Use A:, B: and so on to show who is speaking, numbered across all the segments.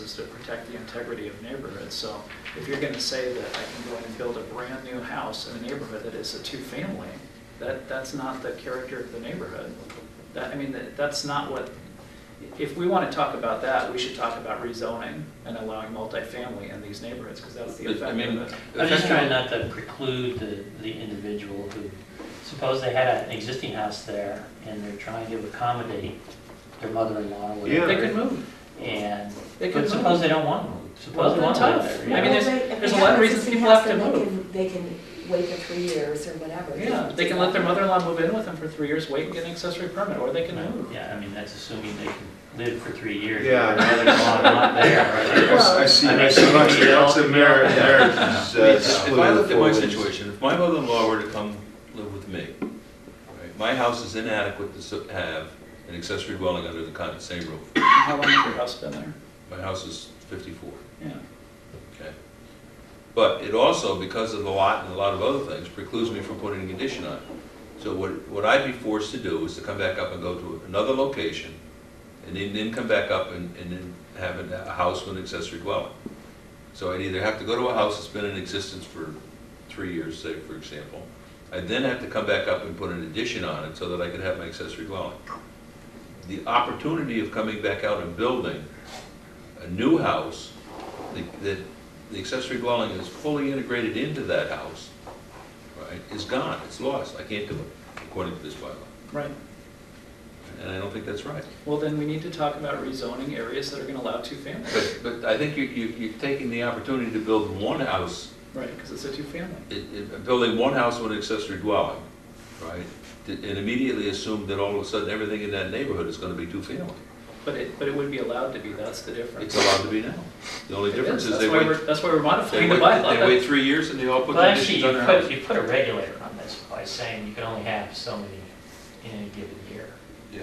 A: is to protect the integrity of neighborhoods. So if you're going to say that I can go in and build a brand-new house in a neighborhood that is a two-family, that, that's not the character of the neighborhood. That, I mean, that- that's not what, if we want to talk about that, we should talk about rezoning and allowing multifamily in these neighborhoods, because that's the
B: But, I
A: effect
B: mean,
A: of it.
C: I'm just trying not to preclude the, the individual who, suppose they had an existing house there and they're trying to accommodate their mother-in-law or
B: Yeah.
A: They
C: whatever.
A: could move.
C: And,
A: They could
C: but
A: move.
C: suppose they don't want to move,
A: Well,
C: suppose they
A: then
C: want to live
A: tough.
C: there.
A: I mean,
C: you know?
A: there's-
D: Well, they- if
A: there's a
D: they
A: lot of
D: have
A: reasons
D: existing
A: people
D: house,
A: have to
D: then they
A: move.
D: can- They can wait for three years or whatever.
A: Yeah, they can let their mother-in-law move in with them for three years, wait and get an accessory permit, or they can move.
C: Yeah, I mean, that's assuming they can live for three years.
E: Yeah.
C: Rather than while not there, right?
E: I see, I
C: Well-
E: see lots, lots of merit there.
B: I mean,
E: uh,
B: If I looked at my
E: split
B: situation, if my mother-in-law were to come live with me, right, my house is inadequate to su- have an accessory dwelling under the con- same roof.
A: How long has your house been there?
B: My house is 54,
A: Yeah.
B: okay? But it also, because of the lot and a lot of other things, precludes me from putting a condition on it. So what, what I'd be forced to do is to come back up and go to another location, and then, then come back up and, and then have a, a house with an accessory dwelling. So I'd either have to go to a house that's been in existence for three years, say, for example. I'd then have to come back up and put an addition on it so that I could have my accessory dwelling. The opportunity of coming back out and building a new house, that- that the accessory dwelling is fully integrated into that house, right, is gone, it's lost, I can't do it, according to this bylaw.
A: Right.
B: And I don't think that's right.
A: Well, then we need to talk about rezoning areas that are gonna allow two families.
B: But, but I think you, you, you're taking the opportunity to build one house
A: Right, because it's a two-family.
B: it- it- building one house with an accessory dwelling, right? And immediately assume that all of a sudden, everything in that neighborhood is gonna be two-family.
A: But it, but it would be allowed to be, that's the difference.
B: It's allowed to be now. The only
A: It
B: difference is
A: That's
B: they
A: why
B: wait,
A: we're- That's why we're
B: they
A: modifying the
B: wait, they wait
A: bylaw.
B: three years and they all put
C: But actually,
B: conditions
C: you
B: on their
C: put,
B: house.
C: you put a regulator on this by saying you can only have so many in any given year.
B: Yeah,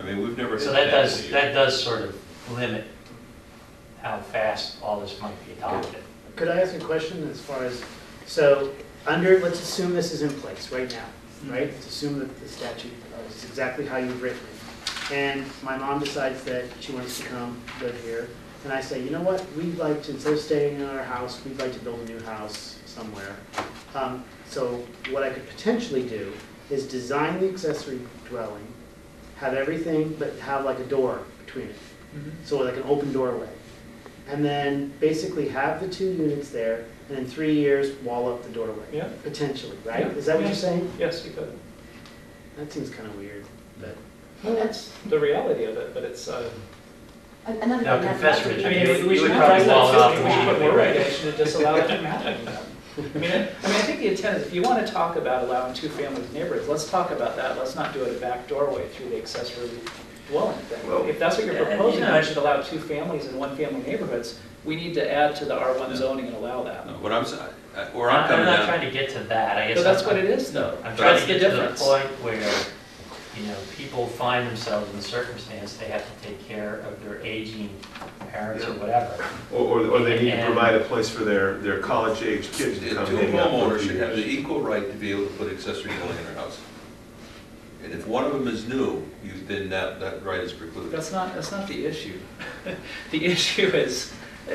B: I mean, we've never.
C: So
B: had
C: that does,
B: here.
C: that does sort of limit how fast all this might be adopted.
F: Could I ask a question as far as, so, under, let's assume this is in place right
A: Mm-hmm.
F: now, right? Let's assume that the statute is exactly how you've written it. And my mom decides that she wants to come live here, and I say, you know what, we'd like to, instead of staying in our house, we'd like to build a new house somewhere. Um, So what I could potentially do is design the accessory dwelling, have everything, but have like a door between it
A: Mhm.
F: so like an open doorway. And then basically have the two units there, and in three years, wall up the doorway.
A: Yeah.
F: Potentially, right?
A: Yeah.
F: Is that what you're saying?
A: Yes, you could.
F: That seems kind of weird, but.
A: Well, that's the reality of it, but it's, uh,
D: An- Another
C: Now,
D: thing that-
C: confess,
D: that-
A: I
C: Richard,
A: mean,
C: You-
A: we- we
C: you
A: should
C: would
A: not
C: probably
A: address
C: wall it
A: that
C: up
A: system,
C: if
A: we
C: you
A: should put
C: did it
A: more
C: right.
A: regulation to disallow it from happening. I mean, I, I mean, I think the intent is, if you wanna talk about allowing two families in neighborhoods, let's talk about that, let's not do it a back doorway through the accessory dwelling
E: Well-
A: thing. If that's what you're
C: Yeah, and, you
A: proposing,
C: know-
A: I should allow two families in one-family neighborhoods, we need to add to the R one zoning and allow that.
B: No, What I'm, sa- I- I- where I'm
C: I'm
B: coming
C: not
B: down,
C: trying to get to that, I guess.
A: So that's
C: I'm-
A: what it is, though.
C: I'm trying
A: That's
C: to
A: the
C: get to the
A: difference.
C: point where, you know, people find themselves in a circumstance, they have to take care of their aging parents or
E: Yeah.
C: whatever.
E: Or, or- or they need to
C: And-
E: provide a place for their, their college-age
B: two
E: kids to come hang out. for a
B: homeowners
E: few
B: should have the
E: years.
B: equal right to be able to put accessory dwelling in their house. And if one of them is new, you, then that, that right is precluded.
A: That's not, that's not the issue. The issue is, uh,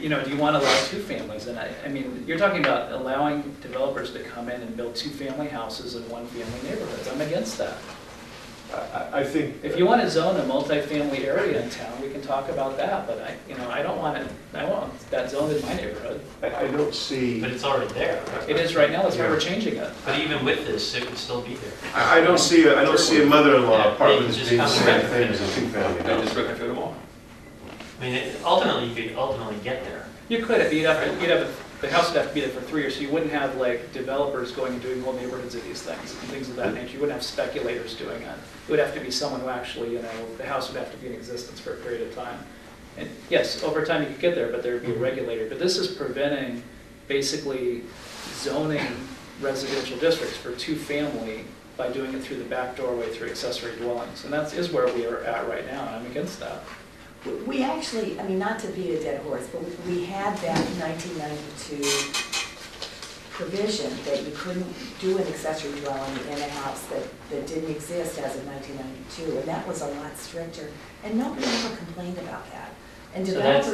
A: you know, do you want to allow two families? And I, I mean, you're talking about allowing developers to come in and build two-family houses in one-family neighborhoods. I'm against that.
E: I, I think.
A: If you want to zone a multifamily area in town, we can talk about that, but I, you know, I don't want it, I want that zoned in my neighborhood.
E: I, I don't see,
C: But it's already there. right?
A: It is right now, that's why we're changing it.
C: But even with this, it would still be there.
E: I, I don't see, I don't see a mother-in-law apartment as
C: Just
E: being the
C: come
E: same
C: around.
E: thing as a two-family
B: I
E: house.
B: just retrofit them all.
C: I mean, it- ultimately, you could ultimately get there.
A: You could, if you'd have, to- you'd have, the house would have to be there for three years, so you wouldn't have like developers going and doing whole neighborhoods of these things, and things of that nature, you wouldn't have speculators doing it. It would have to be someone who actually, you know, the house would have to be in existence for a period of time. And yes, over time you could get there, but there'd be a regulator, but this is preventing basically zoning residential districts for two-family by doing it through the back doorway through accessory dwellings, and that's, is where we are at right now, and I'm against that.
D: We- We actually, I mean, not to beat a dead horse, but we- we had that 1992 provision that you couldn't do an accessory dwelling in a house that, that didn't exist as of 1992, and that was a lot stricter, and nobody ever complained about that. And
C: So that's-
D: developers